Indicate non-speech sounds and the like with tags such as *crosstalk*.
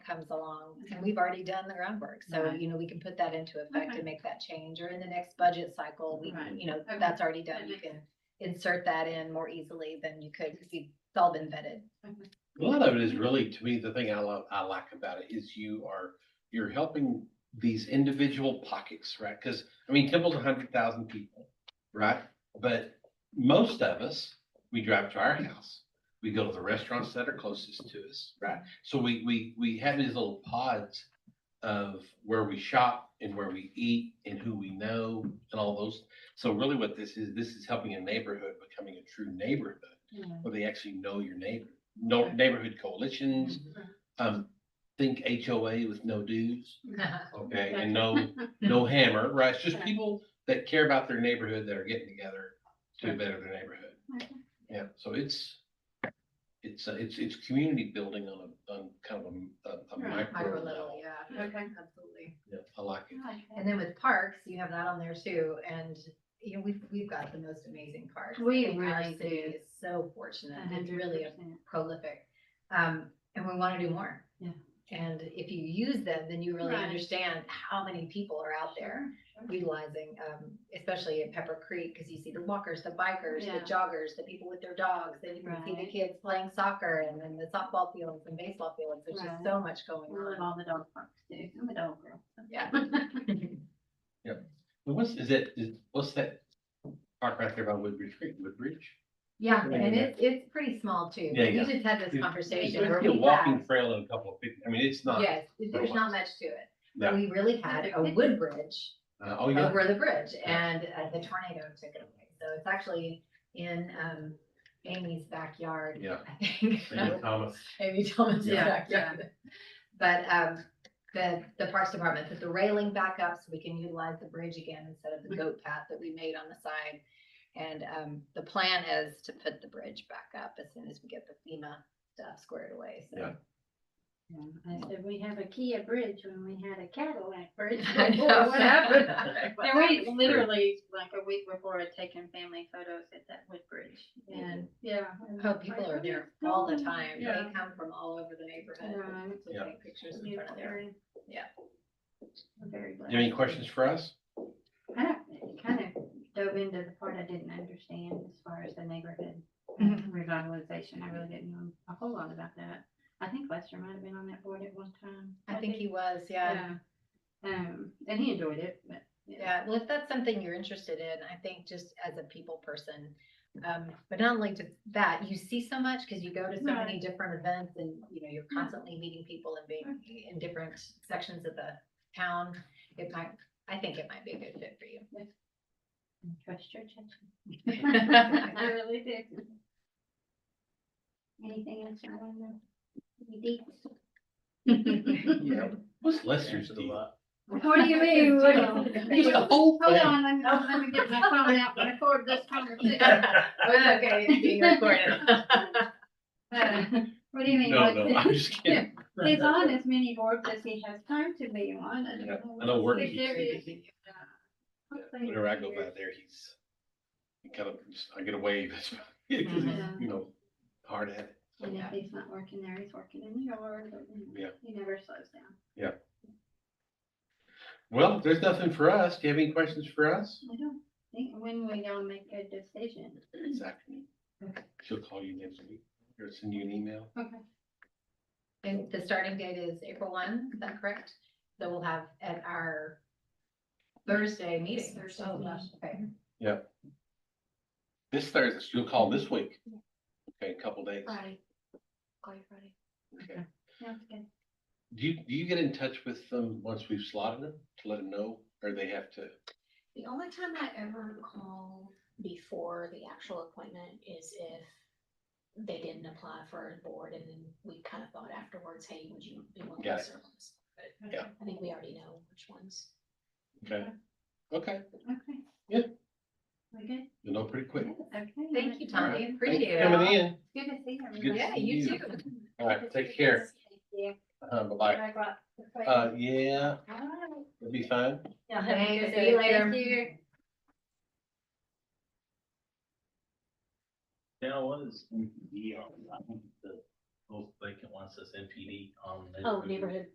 comes along, and we've already done the groundwork, so, Right. you know, we can put that into effect Okay. and make that change, or in the next budget cycle, we, Right. you know, Okay. that's already That done, you makes can insert that in more easily than you could, because it's all been vetted. A lot of it is really, to me, the thing I love, I like about it is you are, you're helping these individual pockets, right? Because, I mean, Temple's a hundred thousand people, right? But most of us, we drive to our house. We go to the restaurants that are closest to us, right? So we, we, we have these little pods of where we shop and where we eat and who we know and all those. So really what this is, this is helping a neighborhood becoming a true neighborhood where they actually know your neighbor. No Okay. neighborhood coalitions, *laughs* Mm-hmm. um, think HOA with no dues, okay, and *laughs* no, no hammer, right? It's just Okay. people that care about their neighborhood that are getting together to Sure. better their neighborhood. Okay. Yeah, so it's, it's, uh, it's, it's community building on a, on kind of a- a, a Right, micro Micro level. level, yeah, Okay. absolutely. Yeah, I like it. And then with parks, you have that on there too, and, you know, we've, we've got the most amazing parks. I We think our really city do. is So fortunate, it's really really. a prolific. Um, and we want to do more. Yeah. And if you use them, then you really Right. understand how many people are out there utilizing, um, especially in Pepper Creek, because you see the walkers, the bikers, the Yeah. joggers, the people with their dogs, then you can see the Right. kids playing soccer and then the softball fields and baseball fields. There's Right. just so much going We love on. all the dog parks too. I'm a dog girl. Yeah. But what's, is it, is, what's that park right there by Woodbridge Creek, Woodbridge? Yeah, Yeah, and yeah. it's, it's pretty small too. Yeah, yeah. We just had Yeah. this It's conversation. where a we walking had- trail and a couple of, pic- I mean, it's not, Yes, there's much. not much to it. No. We really had a wood bridge uh, oh, yeah. over the bridge and uh, the tornado took it away. So it's actually in um Amy's backyard. *laughs* Yeah. I think. Thank you, Thomas. Amy Thomas's Yeah, backyard. But um, the, the Parks Department put the railing back up so we can utilize the bridge again instead Mm-hmm. of the goat path that we made on the side. And um, the plan is to put the bridge back up as soon as we get the FEMA stuff squared away, so. Yeah. Yeah, I said, we have a Kia bridge when we had a Cadillac bridge. *laughs* I Boy, know. *laughs* What happened? And we literally, like a week before, had taken family photos at that wood bridge and, yeah. and Oh, it's people like, are "What there is all the going on?" time. They Yeah. come from all over the neighborhood Right. to Yeah. take pictures in front Beautiful of their. area. Yeah. I'm Very glad. You have any questions for us? I don't- kind of dove into the part I didn't understand as far as the neighborhood *laughs* uh, Mhm. revitalization. I really didn't know a whole lot about that. I think Lester might have been on that board at one time. I think *laughs* he was, yeah. Um, and he enjoyed it, but. Yeah, well, if that's something you're interested in, I think just as a people person. Um, but not only to that, you see so much because you go to so many different events and, you know, you're constantly meeting people and being in different sections of the town. It might, I think it might be a good fit *laughs* for you. *laughs* And Trust your judgment. *laughs* I I really did. Anything else you want to know? Any *laughs* deets? Yeah. What's Lester's Answer the deal? lot. What do you *laughs* mean? What do you- It's a whole Hold thing. on, let me, let me get my phone out and record this *laughs* conversation. was *laughs* okay, it's being recorded. Uh, What do you mean? No, what's no, it- I'm just kidding. He's on as many boards as he has time to be on. I don't Yeah, know I know what's work the keeps serious- me uh, Yeah, hopefully Whenever I go here. by there, he's he kind of, I get a wave. *laughs* That's about it, 'cause he's, Mhm. You know, hard at it. And if he's not working there, he's working in the yard. or, you know, Yeah. He never slows down. Well, if there's nothing for us. Do you have any questions for us? I don't think, when we all make a decision. This afternoon. Okay. She'll call you next week or send you an email. Okay. And the starting date is April one, is that correct? So we'll have at our Thursday meeting. Thursday Oh, meeting. gosh, okay. This Thursday, she'll call this week. Okay, a couple days. Friday. Call you Friday. Okay. Sounds good. Do you, do you get in touch with them once we've slotted them to let them know, or they have to? The only time I ever call before the actual appointment is if they didn't apply for a board and then we kind of thought afterwards, hey, would you be willing Got to it. serve on this? But Yeah. I think we already know which ones. Okay. Okay, Okay. Yeah. We good? you know pretty quick. Okay. Thank you, Tom. Alright, We Thanks for appreciate it. Coming in. Good to see Good everybody. to Yeah, see you you. too. All right, take care. Yeah. Uh, bye-bye. I got the plate. Uh, yeah, All right. it'll be fine. Y'all have a Thanks, good see day. you later. Thank you. Now, what is, yeah, I think the those vacant ones that's NPD on. Oh, neighborhood